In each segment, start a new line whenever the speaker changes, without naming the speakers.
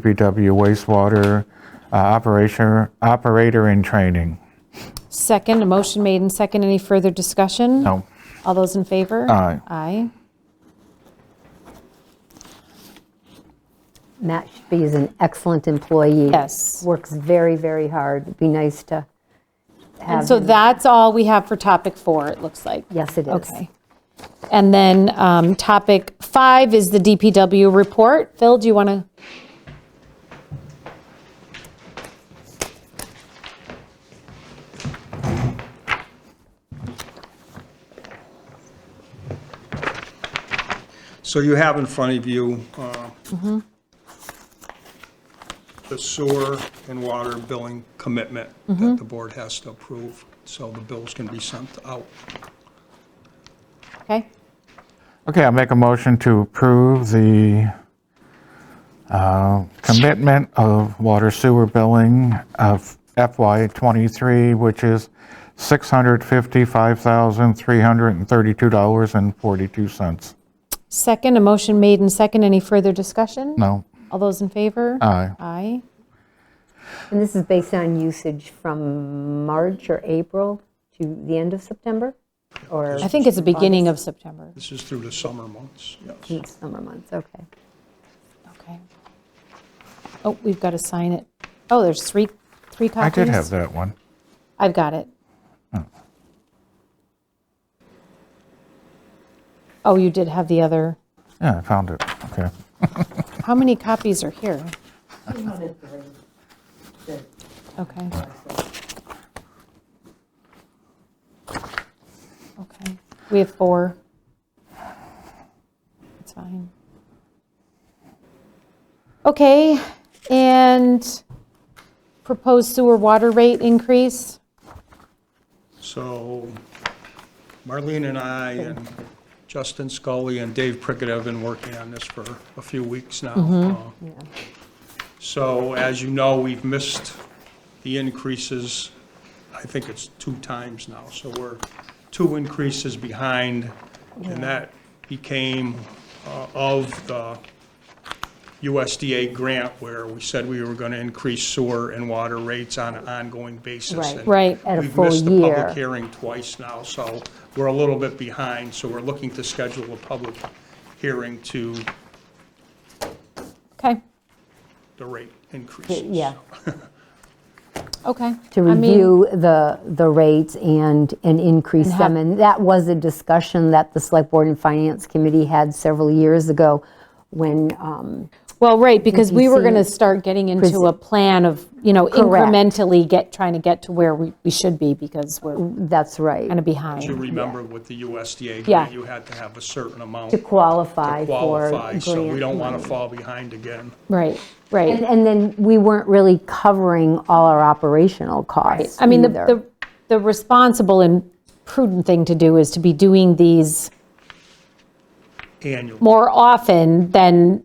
DPW wastewater uh, operator, operator in training.
Second, a motion made and second. Any further discussion?
No.
All those in favor?
Aye.
Aye.
Matt Shpee is an excellent employee.
Yes.
Works very, very hard. It'd be nice to
And
have,
so that's all we have for topic four, it looks like.
yes, it is.
Okay. And then um, topic five is the DPW report. Phil, do you want to?
So you have in front of you uh, the sewer and water billing commitment that the board has to approve, so the bills can be sent out.
Okay.
Okay, I'll make a motion to approve the uh, commitment of water sewer billing of FY '23, which is $655,332.42.
Second, a motion made and second. Any further discussion?
No,
All those in favor?
aye.
Aye.
And this is based on usage from March or April to the end of September? Or
I think it's the beginning of September.
This is through the summer months, yes.
it's summer months, okay.
Okay. Oh, we've got to sign it. Oh, there's three, three
I
copies?
did have that one.
I've got it. Oh, you did have the other,
Yeah, I found it. Okay.
how many copies are here? Okay. Okay, we have four. It's fine. Okay, and proposed sewer water rate increase?
So Marlene and I and Justin Scully and Dave Prickett have been working on this for a few weeks now.
Mm-hmm.
Uh, So as you know, we've missed the increases, I think it's two times now, so we're two increases behind, and that became uh, of the USDA grant where we said we were going to increase sewer and water rates on an ongoing basis.
Right.
and
Right.
At a
We've
full
missed the
year.
public hearing twice now, so we're a little bit behind, so we're looking to schedule a public hearing to
Okay,
the rate increases.
Yeah,
okay.
to
I mean-
review the, the rates and, and increase
have-
them. And that was a discussion that the Select Board and Finance Committee had several years ago when, um,
Well, right, because we were
see-
going to start getting into a plan of, you know,
Correct.
incrementally get, trying to get to where we we should be because we're kind
that's right.
of
You
behind.
remember with the USDA
Yeah.
grant, you had to have a certain amount
To
to
qualify for
qualify, so we
grant
don't want
money.
to fall behind again.
Right,
And,
right.
and then we weren't really covering all our operational costs.
I mean, the-
either.
the the responsible and prudent thing to do is to be doing these
Annually.
more often than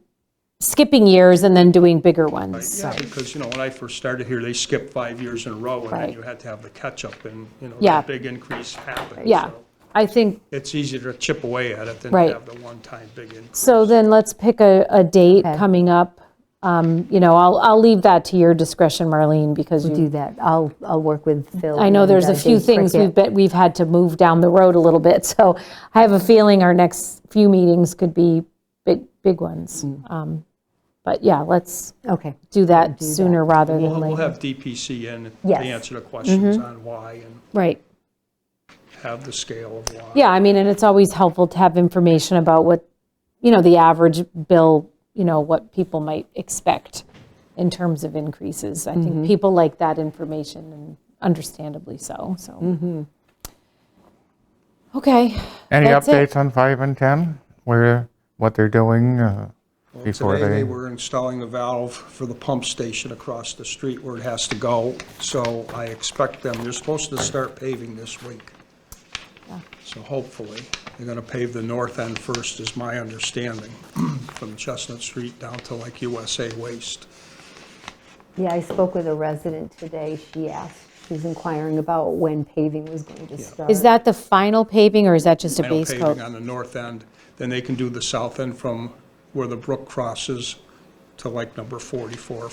skipping years and then doing bigger ones.
Yeah, because, you know, when I first started here, they skipped five years in a row, and
Right.
then you had to have the catch-up, and, you know,
Yeah.
the big increase happened.
Yeah,
so
I think,
It's easier to chip away at it than to
Right.
have the one-time big increase.
so then let's pick a, a date coming up. Um, You know, I'll, I'll leave that to your discretion, Marlene, because you
do that. I'll, I'll work with Phil.
I know
and,
there's
uh,
a few
Dave
things
Prickett.
we've been, we've had to move down the road a little bit, so I have a feeling our next few meetings could be big, big ones.
Mm.
Um, But yeah, let's
Okay,
do that sooner rather
We'll,
than
we'll
later.
have DPC in to
Yes.
answer the questions on why and
Right,
have the scale of why.
yeah, I mean, and it's always helpful to have information about what, you know, the average bill, you know, what people might expect in terms of increases. I
Mm-hmm.
think people like that information, and understandably so, so.
Mm-hmm.
Okay.
Any
That's it.
updates on 5 and 10? Where, what they're doing uh, before
Today, they
they?
were installing a valve for the pump station across the street where it has to go, so I expect them, they're supposed to start paving this week. So hopefully, they're gonna pave the north end first, is my understanding, from Chestnut Street down to like USA Waste.
yeah, I spoke with a resident today. She asked, she was inquiring about when paving was going to start.
Is that the final paving, or is that just a
Final
base coat?
paving on the north end, then they can do the south end from where the brook crosses to like number 44,